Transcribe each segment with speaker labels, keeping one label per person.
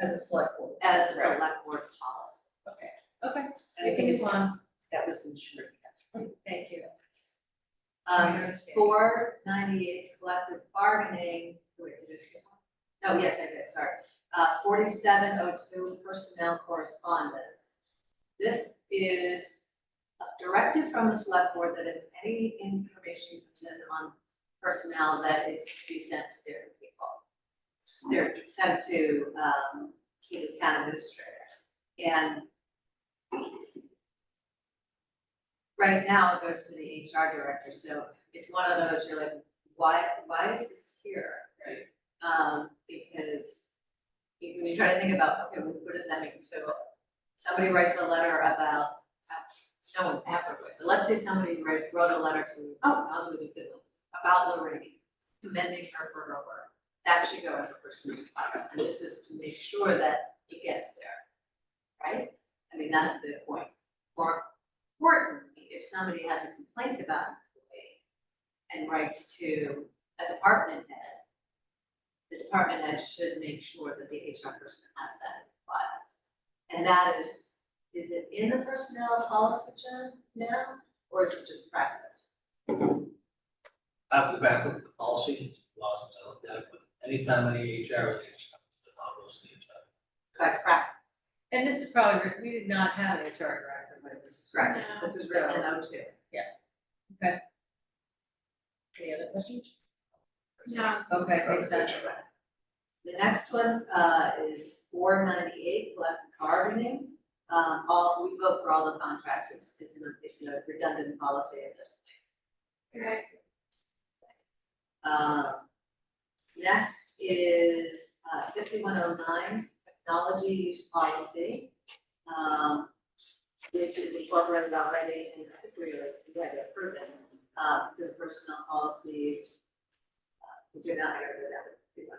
Speaker 1: as a select board.
Speaker 2: as a
Speaker 1: Right.
Speaker 2: select board policy.
Speaker 1: Okay,
Speaker 2: And
Speaker 1: I think it's
Speaker 2: it's-
Speaker 1: one,
Speaker 2: That was ensured.
Speaker 1: thank you. I
Speaker 2: Um,
Speaker 1: understand.
Speaker 2: four ninety-eight collective bargaining, wait, did I skip one? No, yes, I did, sorry. Uh, forty-seven oh two personnel correspondence. This is a directive from the select board that if any information comes in on personnel, that it's to be sent to different people. They're sent to, um, to the town administrator. And right now it goes to the HR director, so it's one of those, you're like, why, why is this here?
Speaker 1: Right.
Speaker 2: Um, because you- when you try to think about, okay, what what does that mean? So somebody writes a letter about, uh, no one ever would, but let's say somebody wrote, wrote a letter to, oh, I'll do a good one, about Lorraine, commending her for her work. That should go in the personal file, and this is to make sure that it gets there, right? I mean, that's the point. Or importantly, if somebody has a complaint about an employee, and writes to a department head, the department head should make sure that the HR person has that in file. And that is, is it in the personnel policy, John, now, or is it just practice?
Speaker 3: After the back look at the policy, it's laws and stuff like that, but anytime any HR relationship, the models need to.
Speaker 2: Correct, practice,
Speaker 1: And this is probably, written- we did not have an HR director, but it was.
Speaker 2: correct, this was written in O two.
Speaker 1: Any other questions?
Speaker 4: No,
Speaker 1: Okay, thanks, Sandra.
Speaker 2: The next one, uh, is four ninety-eight, collective bargaining. Um, all, we vote for all the contracts, it's, it's, in a- it's in a redundant policy at this point.
Speaker 4: right,
Speaker 2: Um, next is fifty-one oh nine, technology use policy. um, which is incorporated already in, I think we already we already approved it, uh, to the personnel policies. Uh, We do not hear that, we do not.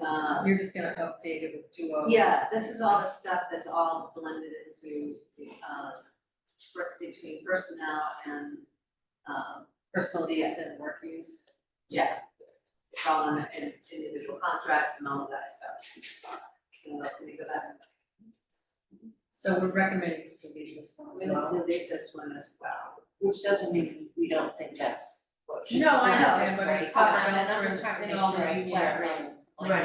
Speaker 2: Um,
Speaker 1: Uh, You're just gonna update it with two oh.
Speaker 2: yeah, this is all the stuff that's all blended into the, um, work between personnel and, um,
Speaker 1: Personal use and work use.
Speaker 2: yeah. It's all in, in individual contracts and all of that stuff. So let me go back.
Speaker 1: So we're recommending to delete this one as
Speaker 2: We will
Speaker 1: well.
Speaker 2: delete this one as well.
Speaker 5: Which doesn't mean we don't think that's what should.
Speaker 1: No, I
Speaker 5: you know,
Speaker 1: understand,
Speaker 5: it's
Speaker 1: but it's
Speaker 5: like,
Speaker 1: covered
Speaker 5: um, and I'm
Speaker 1: elsewhere
Speaker 5: just trying to
Speaker 1: in
Speaker 5: make
Speaker 1: all
Speaker 5: sure
Speaker 1: the
Speaker 5: I
Speaker 1: union,
Speaker 5: clarify
Speaker 1: right.
Speaker 5: like
Speaker 6: Right.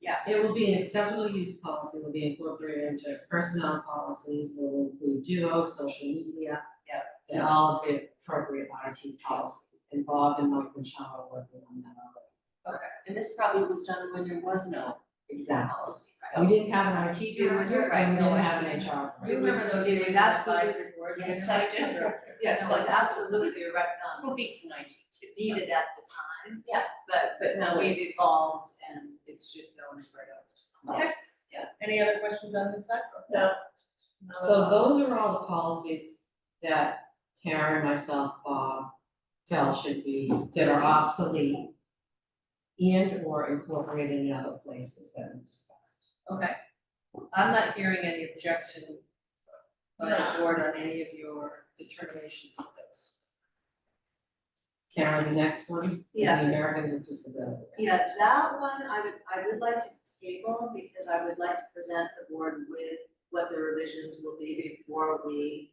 Speaker 5: that.
Speaker 6: It will be an acceptable use policy, will be incorporated into personnel policies, will include duo, social media.
Speaker 2: Yep.
Speaker 6: And all of the appropriate IT policies involved in Mike and Sean are working on that already.
Speaker 5: And this probably was done when there was no
Speaker 6: Exactly.
Speaker 5: policy,
Speaker 6: We
Speaker 5: so.
Speaker 6: didn't have an IT director
Speaker 2: right,
Speaker 6: and we didn't
Speaker 2: no
Speaker 6: have
Speaker 2: IT.
Speaker 6: an HR.
Speaker 1: We remember those
Speaker 2: It was
Speaker 1: days with
Speaker 2: absolutely-
Speaker 1: advisory board.
Speaker 5: Yes,
Speaker 1: and
Speaker 5: I
Speaker 1: the
Speaker 5: do.
Speaker 1: director.
Speaker 2: Yeah, so it's absolutely right, um,
Speaker 5: Who beats an IT too?
Speaker 2: needed at the time.
Speaker 5: Yeah.
Speaker 2: But,
Speaker 5: But now
Speaker 2: we've
Speaker 5: it's-
Speaker 2: evolved and it should go into our notes.
Speaker 1: Okay. Any other questions on this side?
Speaker 6: No.
Speaker 1: So
Speaker 6: So those are all the policies that Karen, myself, Bob felt should be, that are obsolete and or incorporated in other places that we discussed.
Speaker 1: Okay, I'm not hearing any objection by the board on any of your determinations of those.
Speaker 6: Karen, the next one is
Speaker 2: Yeah.
Speaker 6: the Americans with Disabilities.
Speaker 2: Yeah, that one I would, I would like to table because I would like to present the board with what the revisions will be before we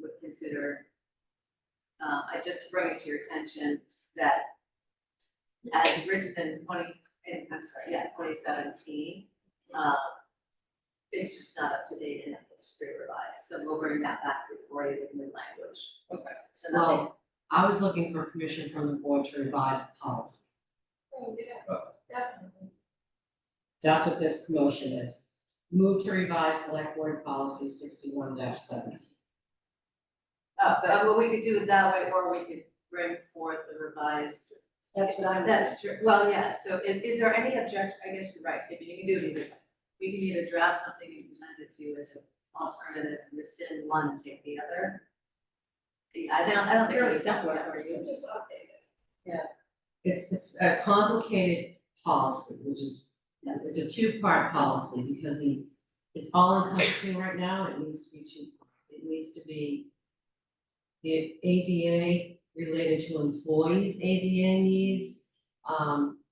Speaker 2: would consider. Uh, I just to bring it to your attention that as written in twenty, in, I'm sorry, yeah, twenty seventeen, uh, it's just not up to date and it's pre-revised, so we'll bring that back before you with new language.
Speaker 1: Okay.
Speaker 2: So nothing,
Speaker 6: Well, I was looking for permission from the board to revise the policy.
Speaker 4: oh, yeah, definitely.
Speaker 6: That's what this motion is. Move to revise select board policy sixty-one seventeen.
Speaker 2: uh, but what we could do it that way, or we could bring forth the revised
Speaker 5: That's what I'm.
Speaker 2: That's true, well, yeah, so is, is there any object, I guess you're right, I mean, you can do it either way. We can either draft something and present it to you as an alternative, rescind one and take the other. The, I don't, I don't think there's sense that
Speaker 1: for you.
Speaker 4: Just update it.
Speaker 6: It's, it's a complicated policy, which is, it's a two-part policy, because the, it's all encompassing right now, and it needs to be two. It needs to be the ADA related to employees' ADA needs, um,